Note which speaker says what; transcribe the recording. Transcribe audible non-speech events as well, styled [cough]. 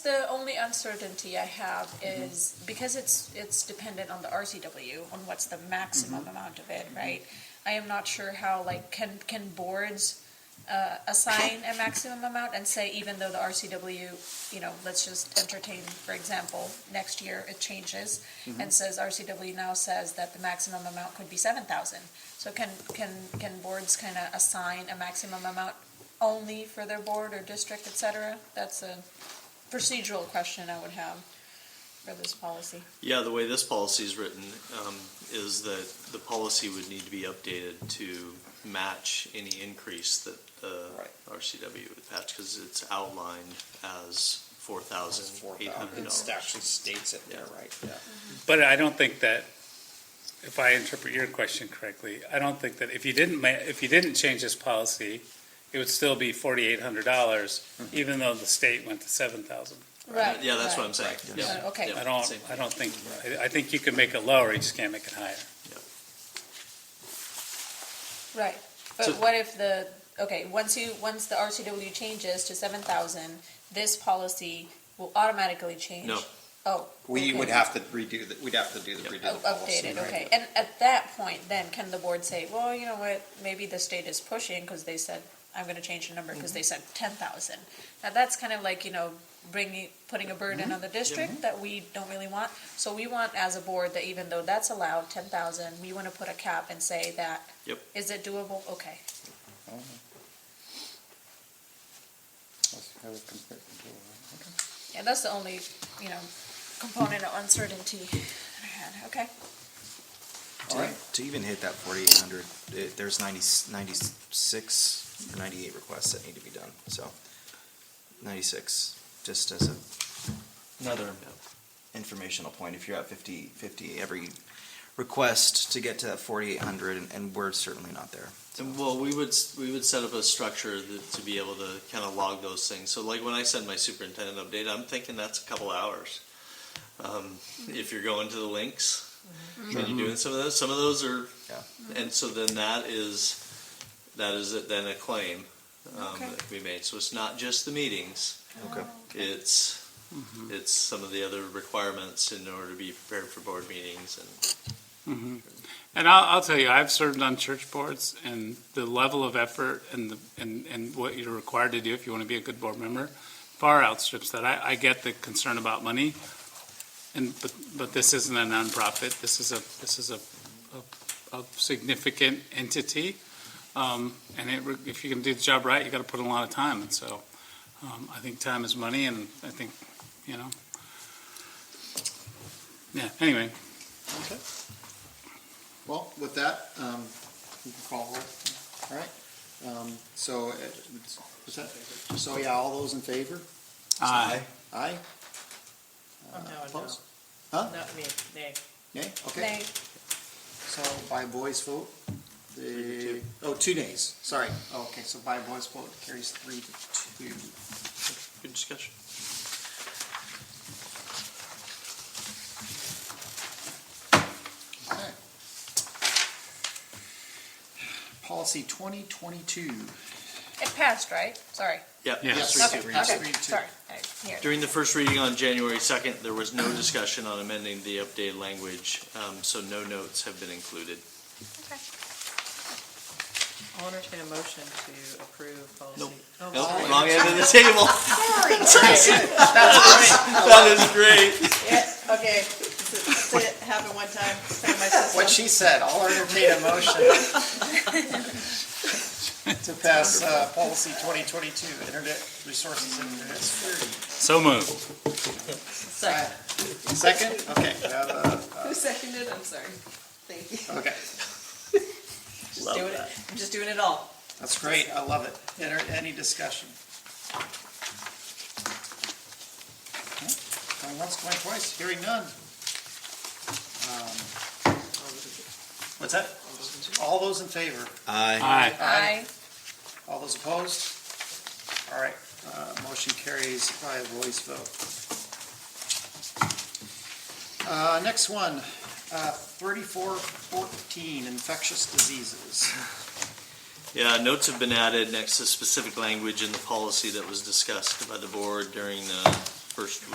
Speaker 1: The only uncertainty I have is, because it's, it's dependent on the RCW, on what's the maximum amount of it, right? I am not sure how, like, can, can boards, uh, assign a maximum amount and say, even though the RCW, you know, let's just entertain, for example, next year it changes and says, RCW now says that the maximum amount could be seven thousand. So can, can, can boards kind of assign a maximum amount only for their board or district, et cetera? That's a procedural question I would have for this policy.
Speaker 2: Yeah, the way this policy is written um, is that the policy would need to be updated to match any increase that the
Speaker 3: Right.
Speaker 2: RCW would patch, because it's outlined as four thousand eight hundred dollars.
Speaker 3: It actually states it there,
Speaker 2: Yeah.
Speaker 3: right? Yeah.
Speaker 4: But I don't think that, if I interpret your question correctly, I don't think that if you didn't ma, if you didn't change this policy, it would still be forty-eight hundred dollars,
Speaker 2: Mm-hmm.
Speaker 4: even though the state went to seven thousand.
Speaker 1: Right.
Speaker 2: Yeah, that's what I'm saying.
Speaker 3: Right.
Speaker 2: Yeah.
Speaker 1: Uh, okay.
Speaker 2: Yeah,
Speaker 4: I don't,
Speaker 2: same.
Speaker 4: I don't think, I, I think you can make it lower, you just can't make it higher.
Speaker 1: Right, but
Speaker 2: So-
Speaker 1: what if the, okay, once you, once the RCW changes to seven thousand, this policy will automatically change?
Speaker 2: No.
Speaker 1: Oh.
Speaker 3: We
Speaker 1: okay.
Speaker 3: would have to redo the, we'd have to do the
Speaker 2: Yep.
Speaker 3: redo
Speaker 1: Oh,
Speaker 3: the policy.
Speaker 1: Updated,
Speaker 3: right?
Speaker 1: okay, and at that point, then can the board say, well, you know what, maybe the state is pushing, cause they said, I'm gonna change the number, cause they
Speaker 5: Mm-hmm.
Speaker 1: said ten thousand. Now, that's kind of like, you know, bringing, putting a
Speaker 5: Mm-hmm.
Speaker 1: burden on the district that we don't really want, so we want as a board that even though that's allowed, ten thousand, we wanna put a cap and say that is
Speaker 2: Yep.
Speaker 1: it doable? Okay. Yeah, that's the only, you know, component of uncertainty that I had, okay?
Speaker 3: All
Speaker 6: To,
Speaker 3: right.
Speaker 6: to even hit that forty-eight hundred, eh, there's 90 96 or ninety-eight requests that need to be done, so ninety-six, just as a, another informational point, if you're at 50 50 every request to get to that forty-eight hundred, and, and we're certainly not there.
Speaker 2: And well, we would, we would set up a structure that, to be able to kind of log those things. So like when I send my superintendent update, I'm thinking that's a couple hours. Um, if you're going to the links and you're doing some of those, some of those are,
Speaker 6: Yeah.
Speaker 2: and so then that is, that is it then a claim um,
Speaker 1: Okay.
Speaker 2: that can be made. So it's not just the meetings,
Speaker 1: Oh.
Speaker 6: Okay.
Speaker 2: it's, it's some of the other requirements in order to be prepared for board meetings and
Speaker 4: Mm-hmm. And I'll, I'll tell you, I've served on church boards, and the level of effort and the, and, and what you're required to do if you want to be a good board member far outstrips that. I, I get the concern about money, and, but, but this isn't a nonprofit, this is a, this is a, a, a significant entity. Um, and it, re- if you can do the job right, you gotta put in a lot of time, and so, um, I think time is money, and I think, you know. Yeah, anyway,
Speaker 5: Okay. Well, with that, um, we can call roll. All right. Um, so, uh, it's- was that, so yeah, all those in favor?
Speaker 4: uh,
Speaker 5: Aye?
Speaker 7: Oh, no, no.
Speaker 5: Opposed? Huh?
Speaker 7: Not me, nay.
Speaker 5: Nay? Okay.
Speaker 1: Nay,
Speaker 5: So by voice vote, the, oh, two nays, sorry. Oh, Okay, so by voice vote carries three to two.
Speaker 2: good discussion.
Speaker 5: Okay. Policy twenty twenty-two.
Speaker 1: it passed, right? Sorry.
Speaker 2: Yeah.
Speaker 4: Yes.
Speaker 5: Three,
Speaker 1: Okay,
Speaker 5: two.
Speaker 1: okay,
Speaker 5: Three, two.
Speaker 1: sorry. I- here.
Speaker 2: During the first reading on January 2nd, there was no discussion on amending the updated language, um, so no notes have been included.
Speaker 7: I'll entertain a motion to approve policy.
Speaker 2: Nope.
Speaker 7: Oh,
Speaker 2: Nope,
Speaker 7: sorry.
Speaker 2: wrong end of the table. [laughs] That is great.
Speaker 7: Yeah, okay. Does it- does it happen one time, time my
Speaker 5: What
Speaker 7: system?
Speaker 5: she said, I'll entertain a motion to pass uh, policy 2022, internet resources and internet security.
Speaker 4: so moved.
Speaker 7: Second.
Speaker 5: Second? Okay, we have, uh,
Speaker 7: Who seconded, I'm sorry. Thank you.
Speaker 5: okay,
Speaker 7: Just doing it, I'm just doing it all.
Speaker 5: that's great, I love it. Enter- Any discussion? Going once, going twice, hearing none. Um, What's that? All those in favor?
Speaker 3: Uh,
Speaker 6: Aye.
Speaker 4: Aye.
Speaker 1: Aye.
Speaker 5: All those opposed? All right, uh, motion carries by a voice vote. Uh, Next one, uh, thirty-four fourteen, infectious diseases.
Speaker 2: Yeah, notes have been added next to specific language in the policy that was discussed by the board during the first